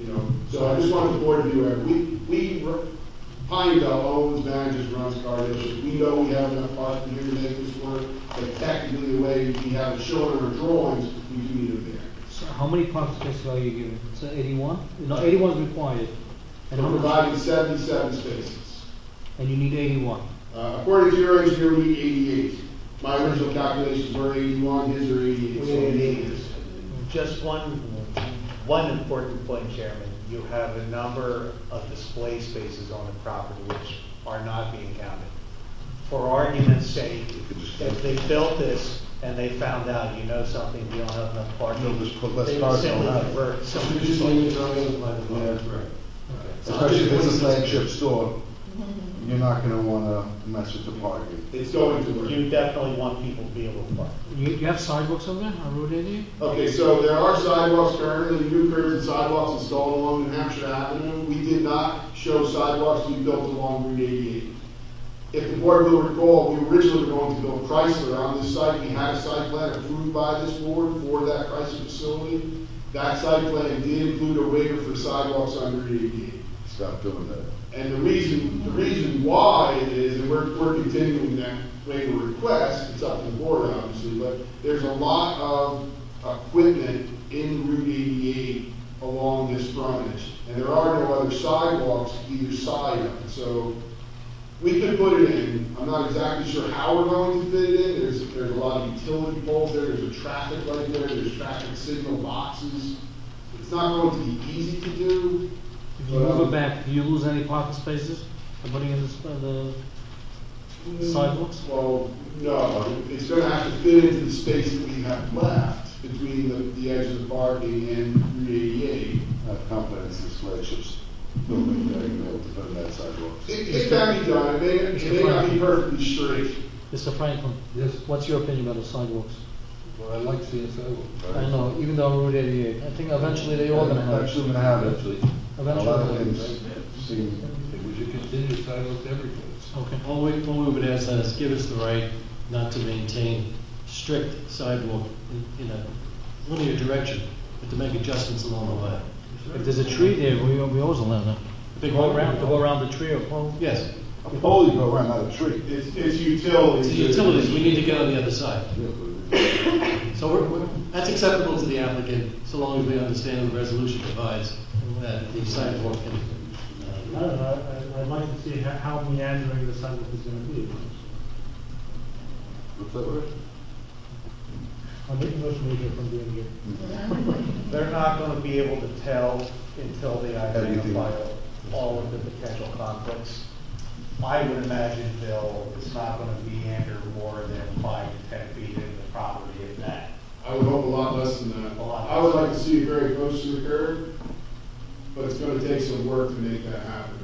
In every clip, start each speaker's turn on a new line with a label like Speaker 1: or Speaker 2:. Speaker 1: You know, so I just want the board to be aware, we, we, re- Pineville owns, manages, runs car dealerships. We know we have enough parking here to make this work, but technically, the way we have it shown in our drawings, we do need a variance.
Speaker 2: So how many parking spaces are you giving? So eighty-one? No, eighty-one is required. And how
Speaker 1: We're
Speaker 2: much,
Speaker 1: providing seventy-seven spaces.
Speaker 2: and you need eighty-one.
Speaker 1: Uh, according to your engineer, we need eighty-eight. My original calculations were eighty-one, his are eighty-eight. so we need eighty.
Speaker 3: Just one, one important point, Chairman. You have a number of display spaces on the property which are not being counted. For argument's sake, if they built this and they found out, you know something, you don't have enough parking.
Speaker 4: They'll just put less
Speaker 3: they would
Speaker 4: cars on
Speaker 3: simply
Speaker 4: that.
Speaker 3: convert some-
Speaker 1: So we just need to Yeah, right.
Speaker 4: Especially if it's a flagship store, you're not gonna wanna mess with the parking.
Speaker 1: It's going to work.
Speaker 3: You definitely want people to be able to park.
Speaker 2: You, you have sidewalks over there on Route eighty?
Speaker 1: Okay, so there are sidewalks currently, new curbs and sidewalks installed along New Hampshire Avenue. We did not show sidewalks to be built along Route 88. If the board will recall, we originally were going to build Chrysler on this site. We had a site plan approved by this board for that Chrysler facility. That site plan did include a waiver for sidewalks on Route 88.
Speaker 4: Stop doing that.
Speaker 1: And the reason, the reason why it is, and we're, we're continuing that waiver request, it's up to the board obviously, but there's a lot of equipment in Route eighty-eight along this frontage, and there are no other sidewalks either side of it, so we could put it in, I'm not exactly sure how we're going to fit it in, there's, there's a lot of utility poles there, there's a traffic light there, there's traffic signal boxes. It's not going to be easy to do,
Speaker 2: If you move it back, do you lose any parking spaces? by putting in this, uh, the sidewalks?
Speaker 1: Well, no, it's gonna have to fit into the space that we have left between the, the edge of the parking and E Route eighty-eight.
Speaker 4: Have confidence in this flagship's building, they're gonna be able to put in that sidewalks.
Speaker 1: It, it can be done, it may, it may not be perfectly straight.
Speaker 2: Mr. Franklin?
Speaker 5: Yes.
Speaker 2: What's your opinion about the sidewalks?
Speaker 5: Well, I like CSO.
Speaker 2: I know, even though Route eighty-eight, I think eventually they all gonna have.
Speaker 4: Actually, we're gonna have it. A lot of things seem,
Speaker 5: We should continue sidewalks every place.
Speaker 2: Okay.
Speaker 6: All we, all we would ask is give us the right not to maintain strict sidewalk in, in a linear direction, but to make adjustments along the way.
Speaker 2: If there's a tree there, we, we always allow that.
Speaker 6: Big
Speaker 2: Go
Speaker 6: one.
Speaker 2: around, to go around the tree or pole.
Speaker 6: Yes,
Speaker 4: a pole you go around, not a tree.
Speaker 1: It's, it's utilities.
Speaker 6: it's the utilities, we need to get on the other side.
Speaker 4: It's
Speaker 6: So we're, we're, that's acceptable to the applicant, so long as we understand the resolution provides that the sidewalk can,
Speaker 7: I
Speaker 6: uh,
Speaker 7: don't know, I, I'd like to see how, how meandering the sidewalk is gonna be.
Speaker 4: that word?
Speaker 7: I'm making much major from being here.
Speaker 3: They're not gonna be able to tell until they
Speaker 4: Everything.
Speaker 3: identify all of the potential conflicts. I would imagine they'll, it's not gonna be under more than five to ten feet in the property if that.
Speaker 1: I would hope a lot less than that.
Speaker 3: A lot.
Speaker 1: I would like to see it very close to the curb, but it's gonna take some work to make that happen.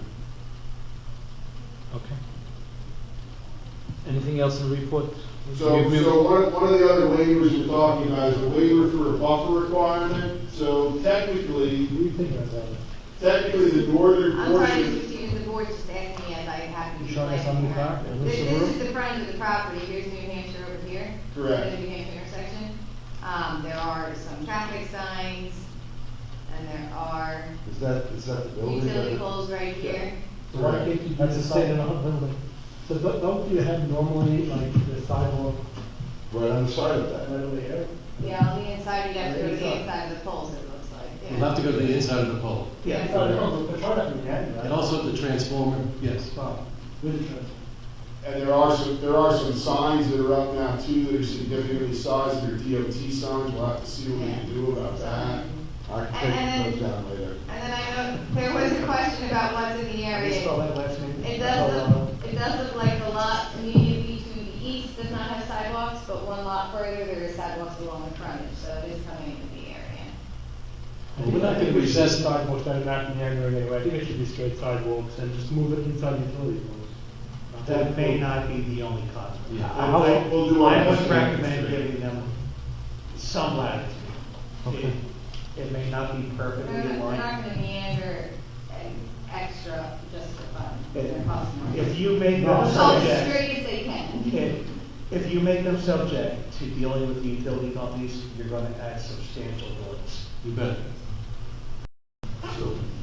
Speaker 2: Okay. Anything else in the report?
Speaker 1: So,
Speaker 2: We- we-
Speaker 1: so one, one of the other waivers we're talking about is a waiver for a buffer requirement. So technically,
Speaker 7: What do you think about that?
Speaker 1: technically the northern
Speaker 8: I'm
Speaker 1: portion.
Speaker 8: sorry, Mr. Stevens, the board just asked me as I happened to.
Speaker 2: You showing
Speaker 8: be
Speaker 2: us on the
Speaker 8: glad.
Speaker 2: car? It looks
Speaker 8: This,
Speaker 2: the
Speaker 8: this
Speaker 2: room?
Speaker 8: is the front of the property, here's New Hampshire over here.
Speaker 1: Correct.
Speaker 8: The New Hampshire intersection. Um, there are some traffic signs, and there are
Speaker 4: Is that, is that the building?
Speaker 8: utility poles right here.
Speaker 7: Why can't you do
Speaker 2: That's a
Speaker 7: the
Speaker 2: state and
Speaker 7: sidewalk? So don't, don't you have normally like the sidewalk
Speaker 4: Right on the side of
Speaker 7: right
Speaker 4: that.
Speaker 7: over there?
Speaker 8: Yeah, on the inside, you'd have to go to the
Speaker 7: Inside.
Speaker 8: inside of the poles, it looks like.
Speaker 6: we'll have to go to the inside of the pole.
Speaker 8: Yeah.
Speaker 7: So I don't know, but try not to meander, right?
Speaker 6: And also the transformer, yes.
Speaker 7: Well, with the trans-
Speaker 1: And there are some, there are some signs that are up now too, that are significantly sized, they're DOT signs, we'll have to see what we can do about that.
Speaker 4: Architect goes down later.
Speaker 8: And then I know, there was a question about what's in the
Speaker 3: Can you spell
Speaker 8: area.
Speaker 3: that last name?
Speaker 8: It does look, it does look like the lot immediately to the east does not have sidewalks, but one lot further, there is sidewalks along the frontage, so it is coming into the area.
Speaker 6: And we're not gonna
Speaker 7: we should have
Speaker 6: recess,
Speaker 7: sidewalks that are not meandering anyway, I think it should be straight sidewalks and just move it inside utility poles.
Speaker 3: That may not be the only conflict.
Speaker 6: Yeah.
Speaker 3: I-
Speaker 1: How-
Speaker 3: I-
Speaker 1: we'll do our
Speaker 3: I
Speaker 1: best.
Speaker 3: would recommend giving them some latitude. It- It may not be perfectly
Speaker 8: We're not, we're
Speaker 3: aligned.
Speaker 8: not gonna meander an extra just for fun,
Speaker 3: Yeah.
Speaker 8: or cost more.
Speaker 3: If you make
Speaker 7: No,
Speaker 3: them
Speaker 7: I'm
Speaker 8: Call it
Speaker 3: subject,
Speaker 8: straight as they can.
Speaker 3: if, if you make them subject to dealing with the utility companies, you're gonna add substantial delays.
Speaker 6: you bet.